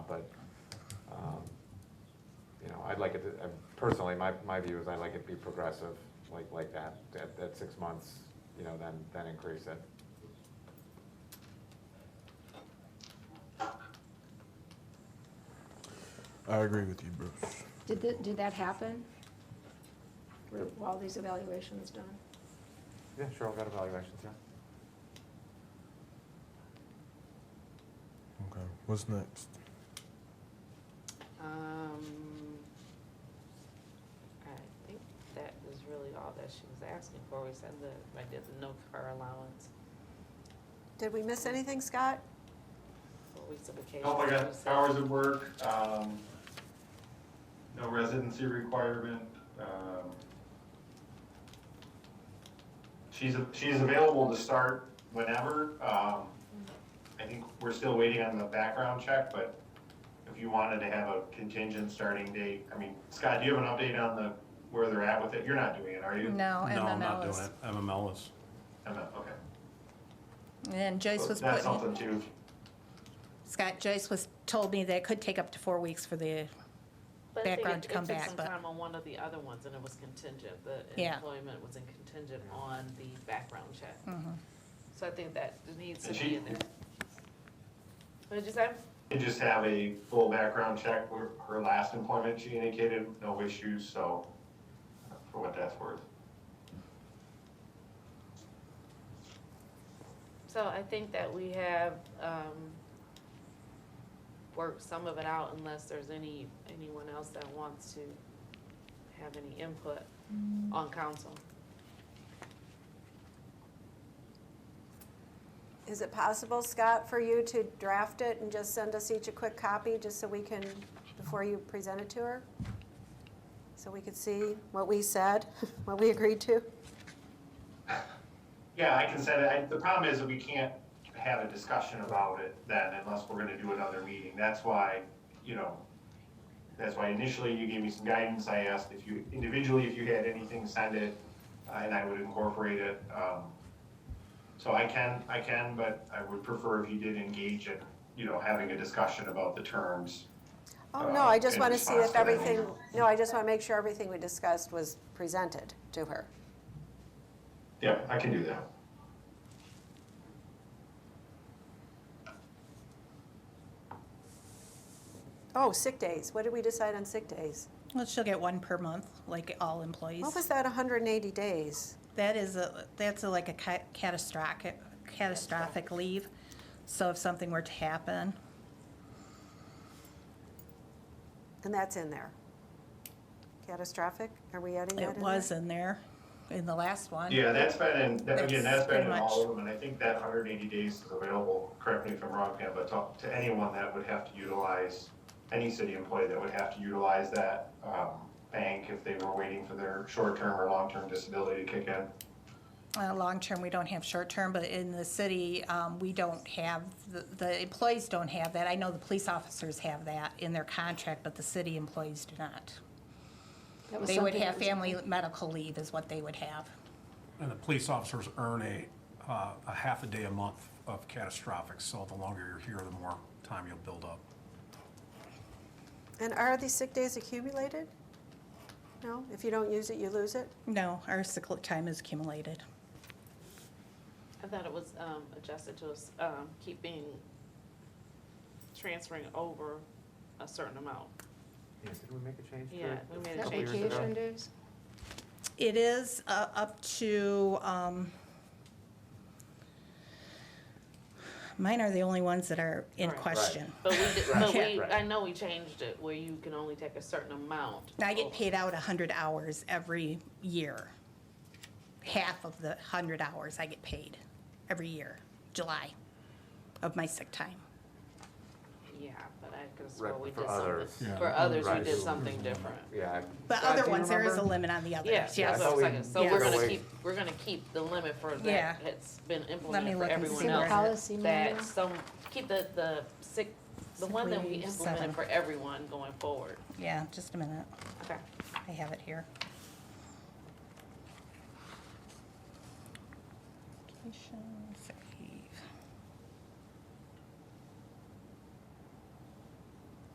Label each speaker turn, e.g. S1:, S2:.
S1: um, like it, to- I- personally, my, my view is I like it to be progressive, like, like that, at, at six months, you know, then, then increase it.
S2: I agree with you, Bruce.
S3: Did, th- did that happen? Were all these evaluations done?
S1: Yeah, sure, I've got evaluations, yeah.
S2: Okay, what's next?
S4: Um, I think that was really all that she was asking for. We said the, I did the no car allowance,
S5: Did we miss anything, Scott?
S4: four weeks of vacation.
S6: Nope, I got
S4: you said-
S6: hours of work, um, no residency requirement, um. She's, she's available to start whenever, um, I think we're still waiting on the background check, but if you wanted to have a contingent starting date, I mean, Scott, do you have an update on the, where they're at with it? You're not doing it, are you?
S7: No,
S8: No, I'm not
S7: MML
S8: doing
S7: is.
S8: it. MML is.
S6: I'm not, okay.
S7: And Joyce was
S6: That's
S7: putting,
S6: something too,
S7: Scott, Joyce was, told me that it could take up to four weeks for the,
S4: But I think
S7: background
S4: it-
S7: to come back,
S4: It took
S7: but-
S4: some time on one of the other ones, and it was contingent, the
S7: Yeah.
S4: employment was in contingent on the background check.
S7: Mhm.
S4: So I think that needs to
S6: And
S4: be
S6: she-
S4: in there. What did you say?
S6: and just have a full background check. Her- Her last employment, she indicated no issues, so uh, for what that's worth.
S4: So I think that we have, um, worked some of it out unless there's any, anyone else that wants to have any input
S7: Mm-hmm.
S4: on council.
S5: Is it possible, Scott, for you to draft it and just send us each a quick copy, just so we can, before you present it to her? So we could see what we said, what we agreed to?
S6: Yeah, I can send it. I- The problem is that we can't have a discussion about it then unless we're gonna do another meeting. That's why, you know, that's why initially you gave me some guidance. I asked if you, individually, if you had anything, send it, uh, and I would incorporate it. Um, So I can, I can, but I would prefer if you did engage in, you know, having a discussion about the terms.
S5: Oh, no, I just
S6: Uh,
S5: want to
S6: in
S5: see if
S6: response to that.
S5: everything, no, I just want to make sure everything we discussed was presented to her.
S6: Yeah, I can do that.
S5: Oh, sick days, what did we decide on sick days?
S7: well, she'll get one per month, like all employees.
S5: What was that, 180 days?
S7: That is a, that's a, like a ca- catastrophic, catastrophic leave. So if something were to happen,
S5: And that's in there. Catastrophic, are we adding that in
S7: it
S5: there?
S7: was in there, in the last one.
S6: Yeah, that's been in, that- again, that's
S7: That's
S6: been in
S7: pretty
S6: all of them, and I think that hundred and eighty days is available, correct me if I'm wrong, Pam, but to, to anyone that would have to utilize, any city employee that would have to utilize that, um, bank if they were waiting for their short-term or long-term disability to kick in.
S7: Uh, long-term, we don't have short-term, but in the city, um, we don't have, the- the employees don't have that. I know the police officers have that in their contract, but the city employees do not.
S3: That was
S7: They would
S3: something that
S7: have
S3: was-
S7: family medical leave is what they would have.
S8: And the police officers earn a, uh, a half a day a month of catastrophic, so the longer you're here, the more time you'll build up.
S5: And are these sick days accumulated? No, if you don't use it, you lose it?
S7: No, our sick li- time is accumulated.
S4: I thought it was, um, adjusted to, us, um, keeping, transferring over a certain amount.
S1: Yeah, did we make a change to it?
S4: Yeah, we made
S1: a
S4: a
S1: couple
S3: That
S4: change.
S1: years ago?
S3: vacation days?
S7: It is uh, up to, um, mine are the only ones that are in
S4: Right. Right.
S7: question.
S4: But we, did- but
S7: Right.
S4: we, I know we changed it where you can only take a certain amount.
S7: I get
S4: over.
S7: paid out 100 hours every year. Half of the 100 hours I get paid every year, July, of my sick time.
S4: Yeah, but I could swear
S1: Right,
S4: we
S1: for
S4: did
S1: others.
S4: something,
S8: Yeah.
S4: for others, we
S1: Right.
S4: did something different.
S1: Yeah. I-
S7: But
S1: Scott, do
S7: other
S1: you
S7: ones, there is a
S1: remember?
S7: limit on the others,
S4: Yeah,
S7: yes.
S1: yeah,
S4: that's
S1: so
S4: what
S1: we-
S4: I'm saying, so
S7: yeah.
S4: we're
S1: Go
S4: gonna
S1: away.
S4: keep, we're gonna keep the limit for
S7: Yeah.
S4: that, it's been
S7: me
S4: implemented for
S7: look and
S4: everyone
S7: see what
S4: else.
S7: it-
S3: Policy manual.
S4: That some, keep the, the sick, the
S7: Sick
S4: one that we
S7: leave, seven.
S4: implemented for everyone going forward.
S7: Yeah, just a minute,
S4: Okay.
S7: I have it here. Vacation.